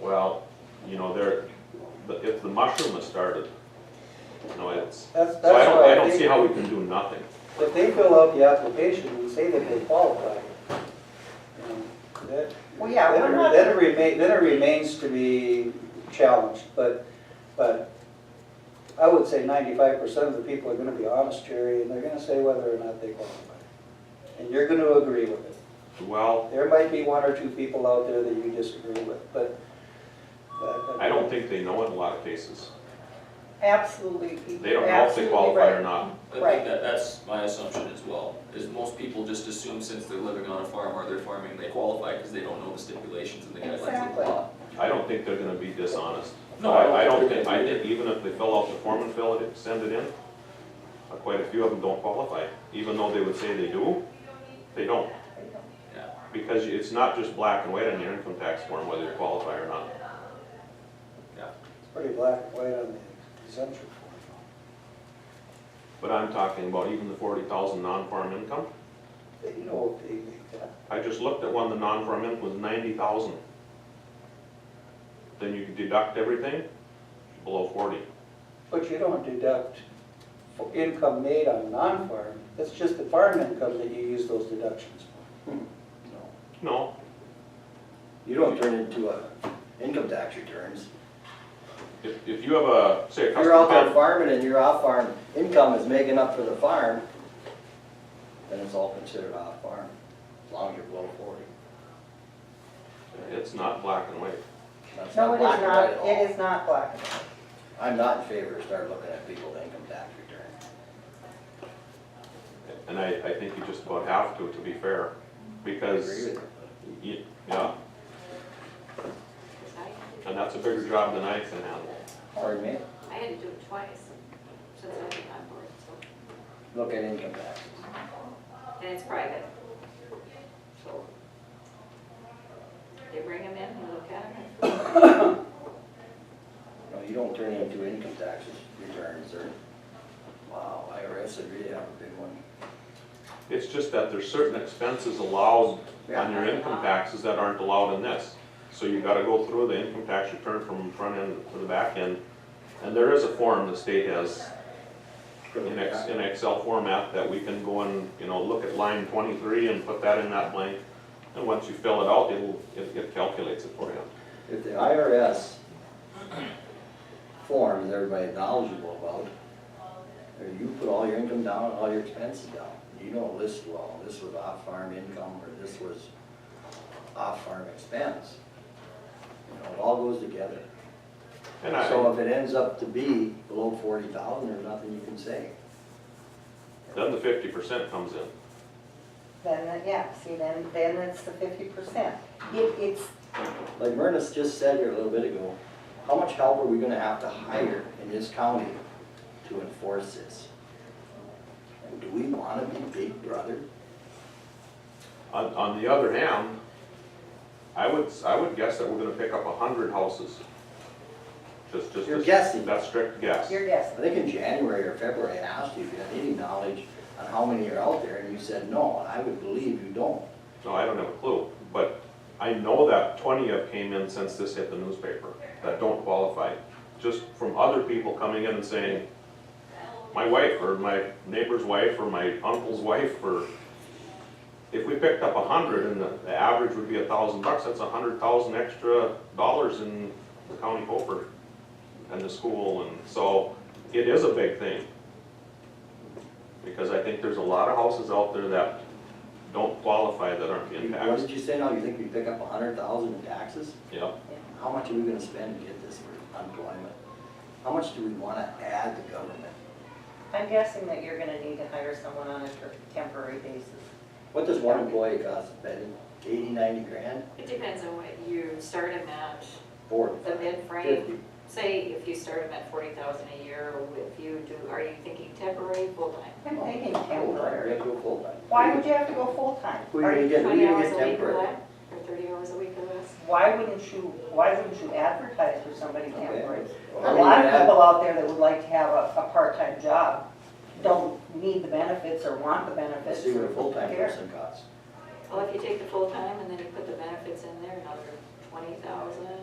Well, you know, they're, the- if the mushroom has started, you know, it's, That's, that's so I don't, why I I don't see how we think, can do nothing. if they fill out the application and say that they qualify, you know, that, Well, yeah, then we're it- not, then it remain, then it remains to be challenged, but, but I would say ninety-five percent of the people are gonna be honest, Jerry, and they're gonna say whether or not they qualify. And you're gonna agree with it. Well, There might be one or two people out there that you disagree with, but. but- I don't think they know in a lot of cases. absolutely. They don't know if they qualify or not. I think Right. that, that's my assumption as well, is most people just assume since they're living on a farm or they're farming, they qualify because they don't know the stipulations and the guidelines of the Exactly. law. I don't think they're gonna be dishonest. No, I, I don't they're think, gonna I do think even if they fill out the form and fill it, send it in, uh, quite a few of them don't qualify, even though they would say they do, they don't. Yeah. Because it's not just black and white on your income tax form whether you qualify or not. It's pretty black and white on the exemption form. But I'm talking about even the forty thousand non-farm income. They know if they make that. I just looked at one, the non-farm income was ninety thousand. Then you deduct everything below forty. But you don't deduct for income made on non-farm, it's just the farm income that you use those deductions No. No, You don't turn into a income tax returns. if, if you have a, say a If you're out there custom farming and your off-farm income is making up for the farm, then it's all considered off-farm, as long as you're below forty. farm, it's not black and white. That's No, it is black and white not, at all. it is not black. and white. I'm not in favor of start looking at people's income tax returns. And I, I think you just about have to, to be fair, I because. agree with you. Y- Yeah. And that's a bigger job than I can handle. Pardon me? I had to do it twice since I've been on board, so, Look at income taxes. and it's private. So they bring them in and look at them. No, you don't turn into income taxes returns or, wow, IRS would really have a big one. It's just that there's certain expenses allowed on your Yeah. income taxes that aren't allowed in this. So you gotta go through the income tax return from front end to the back end. And there is a form the state has in Ex, in Excel format that we can go and, you know, look at line twenty-three and put that in that blank. And once you fill it out, it'll, it it calculates it for you. If the IRS form is everybody knowledgeable about, or you put all your income down, all your expenses down, you don't list, well, this was off-farm income, or this was off-farm expense. You know, it all goes together. And I. So if it ends up to be below forty thousand, there's nothing you can say. Then the fifty percent comes in. Then, uh, yeah, see, then, then it's the fifty percent. It, it's, Like Myrna's just said here a little bit ago, how much help are we gonna have to hire in this county to enforce this? And do we wanna be big brother? On, on the other hand, I would, s- I would guess that we're gonna pick up a hundred houses. Just, just. You're as- guessing. That's strict guess. you're I guessing. think in January or February, I asked you if you had any knowledge on how many are out there, and you said no, and I would believe you don't. No, I don't have a clue, but I know that twenty have came in since this hit the newspaper that don't qualify. Just from other people coming in and saying, my wife or my neighbor's wife or my uncle's wife or. If we picked up a hundred and the, the average would be a thousand bucks, that's a hundred thousand extra dollars in the county coffers and the school and so it is a big thing. Because I think there's a lot of houses out there that don't qualify that aren't being What taxed. did you say now, you think we pick up a hundred thousand in taxes? Yep. How much are we gonna spend to get this for unemployment? How much do we wanna add to government? I'm guessing that you're gonna need to hire someone on a ter- temporary basis. What does one employee cost, Betty? Eighty, ninety grand? It depends on what you start them at, Or the mid-frame. fifty? Say if you start them at forty thousand a year, or if you do, are you thinking temporary, full-time? I'm thinking Full-time, we temporary. have to go full-time. Why would you have to go full-time? Who are you gonna get, who are Twenty you gonna hours get a week or temporary? less, or thirty hours a week or less? Why wouldn't you, why wouldn't you advertise for somebody Okay. temporary? Well, A I lot mean, of I- people out there that would like to have a, a part-time job don't need the benefits or want the Let's benefits. see what a or full-time care. person costs. Well, if you take the full-time and then you put the benefits in there, another twenty thousand,